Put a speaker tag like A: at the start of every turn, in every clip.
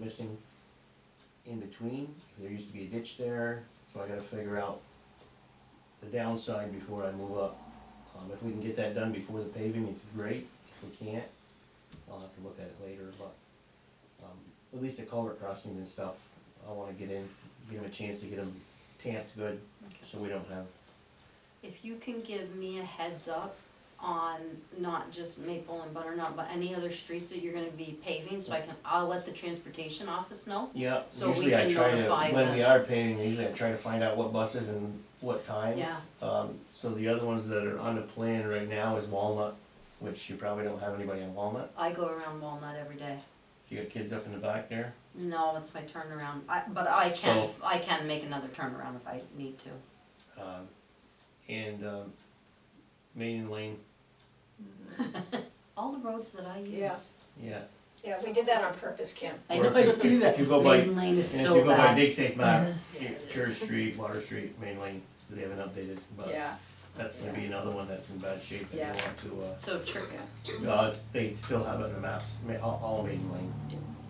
A: missing in between. There used to be a ditch there, so I gotta figure out the downside before I move up. Um, if we can get that done before the paving, it's great. If we can't, I'll have to look at it later, but, um, at least the culvert crossings and stuff, I wanna get in, give them a chance to get them tamped good, so we don't have
B: If you can give me a heads up on not just Maple and Butternut, but any other streets that you're gonna be paving, so I can, I'll let the transportation office know.
A: Yeah,
B: So we
A: usually I
B: can
A: try to,
B: notify
A: when
B: them.
A: we are paying, usually I try to find out what buses and what times.
B: Yeah.
A: Um, so the other ones that are on the plan right now is Walnut, which you probably don't have anybody on Walnut.
B: I go around Walnut every day.
A: If you got kids up in the back there,
B: No, that's my turnaround, I, but I can,
A: So-
B: I can make another turnaround if I need to.
A: um, and, um, Main Lane,
B: All the roads that I
C: Yeah.
B: use.
A: yeah.
C: Yeah, we did that on purpose, Kim.
B: I
A: Or
B: know,
A: if
B: I
A: you-
B: see that.
A: If you go by, and
B: Maiden Lane is
A: if
B: so
A: you go by
B: bad.
A: Big Safe Map, Church Street, Water Street, Main Lane, they haven't updated, but
C: Yeah,
A: that's gonna be another one that's in bad shape that
C: Yeah.
A: you want to, uh,
B: So tricky.
A: No, it's, they still have it on the maps, ma- all, all Maiden Lane,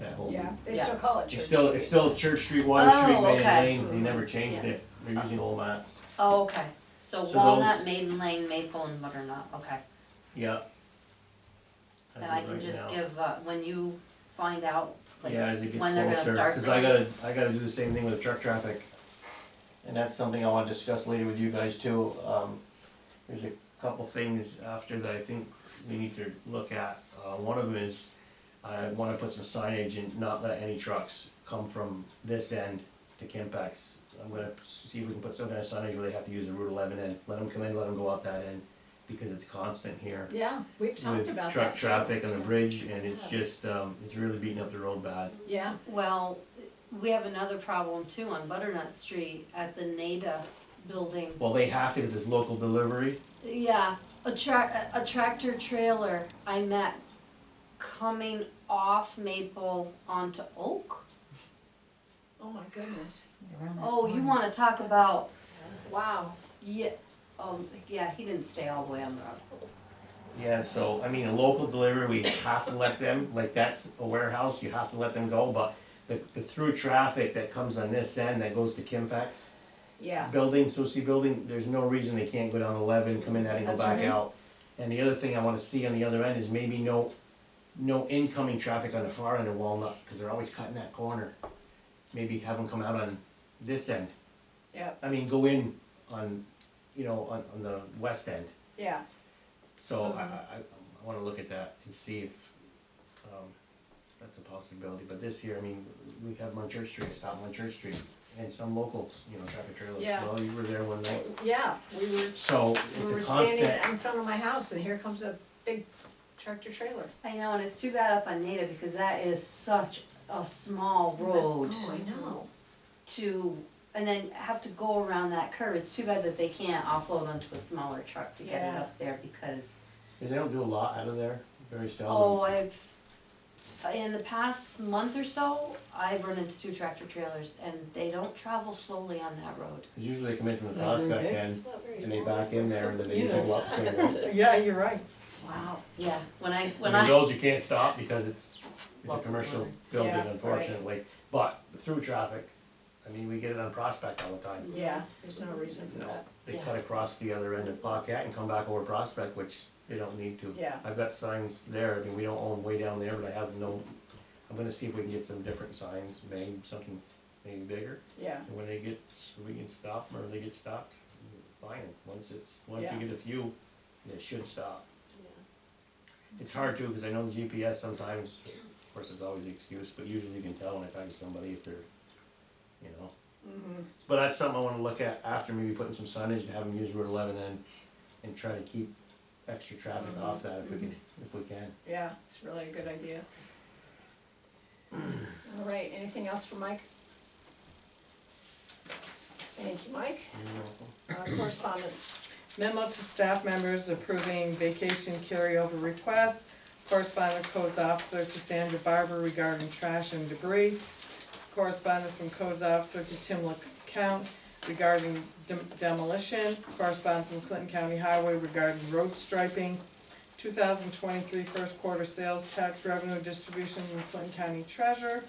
A: that whole.
C: yeah, they
B: Yeah.
C: still call it
A: It's
C: church.
A: still, it's still Church Street, Water
B: Oh,
A: Street, Maiden
B: okay.
A: Lane, they never changed
B: Yeah.
A: it, they're using old maps.
B: Oh, okay, so
A: So
B: Walnut,
A: those-
B: Maiden Lane, Maple and Butternut, okay.
A: Yeah. As
B: And I
A: of
B: can
A: right
B: just
A: now.
B: give, uh, when you find out, like,
A: Yeah, as it
B: when they're gonna
A: gets closer,
B: start
A: cause I gotta,
B: things.
A: I gotta do the same thing with truck traffic. And that's something I wanna discuss later with you guys too, um, there's a couple things after that I think we need to look at. Uh, one of them is, I wanna put some signage and not let any trucks come from this end to Kimpex. I'm gonna see if we can put some kind of signage where they have to use the Route eleven end, let them come in, let them go out that end, because it's constant here
C: Yeah, we've talked
A: with
C: about that.
A: truck
C: too.
A: traffic on the bridge, and it's
C: Yeah.
A: just, um, it's really beating up the road bad.
C: Yeah,
B: Well, we have another problem too on Butternut Street at the NADA building.
A: Well, they have to, because it's local delivery,
B: Yeah, a tra- a tractor trailer I met coming off Maple onto Oak.
C: oh my goodness,
B: Oh, you wanna talk about,
C: wow,
B: yeah, oh, yeah, he didn't stay all the way on the road.
A: yeah, so, I mean, a local delivery, we have to let them, like, that's a warehouse, you have to let them go, but the, the through traffic that comes on this end, that goes to Kimpex
C: yeah,
A: building, Susie building, there's no reason they can't go down eleven, come in that and go
C: That's
A: back
C: right.
A: out. And the other thing I wanna see on the other end is maybe no, no incoming traffic on the far end of Walnut, cause they're always cutting that corner. Maybe have them come out on this end,
C: yeah,
A: I mean, go in on, you know, on, on the west end.
C: yeah,
A: So I, I, I- I wanna look at that and see if, um, that's a possibility, but this year, I mean, we have them on Church Street, stop them on Church Street, and some locals, you know, traffic trailers,
C: Yeah.
A: well, you were there one night.
C: yeah, we were,
A: So it's
C: we
A: a
C: were standing
A: constant,
C: in front of my house and here comes a big tractor trailer.
B: I know, and it's too bad up on NADA because that is such a small road.
C: Oh, I know,
B: to, and then have to go around that curve, it's too bad that they can't offload onto a smaller truck to get it
C: Yeah.
B: up there, because,
A: and they don't do a lot out of there, very seldom.
B: oh, I've, in the past month or so, I've run into two tractor trailers, and they don't travel slowly on that road.
A: Cause usually they come in from the
D: Is that very
A: prospect
D: big?
A: end,
C: it's not very.
A: and they
C: tall.
A: back in there, and then they
D: You know.
A: go up somewhere.
D: Yeah, you're right.
C: Wow,
B: Yeah, when I, when
A: I mean,
B: I,
A: those you can't stop because it's, it's a
B: Local
A: commercial
B: delivery.
A: building
C: Yeah, right.
A: unfortunately, but through traffic, I mean, we get it on Prospect all the time.
C: yeah, there's no reason for
A: You know,
C: that,
A: They
B: Yeah.
A: cut across the other end of Buckeye and come back over Prospect, which they don't need to.
C: Yeah.
A: I've got signs there, I mean, we don't own way down there, but I have no, I'm gonna see if we can get some different signs, maybe something, maybe bigger.
C: yeah,
A: And when they get, we can stop them or they get stopped, fine, once it's, once
C: Yeah.
A: you get a few, they should stop. It's hard too, cause I know the GPS sometimes, of course, it's always the excuse, but usually you can tell when I talk to somebody if they're, you know.
C: mhm,
A: But that's something I wanna look at after maybe putting some signage to have them use Route eleven and, and try to keep extra traffic off that if we can, if we can.
C: yeah, it's really a good idea. All right, anything else for Mike? Thank you, Mike. Uh, correspondence,
D: Memo to staff members approving vacation carryover request. Correspondence codes officer to Sandra Barber regarding trash and debris. Correspondence from codes officer to Tim LeCount regarding dem- demolition. Correspondence from Clinton County Highway regarding road striping. 2023 first quarter sales tax revenue distribution from Clinton County Treasurer.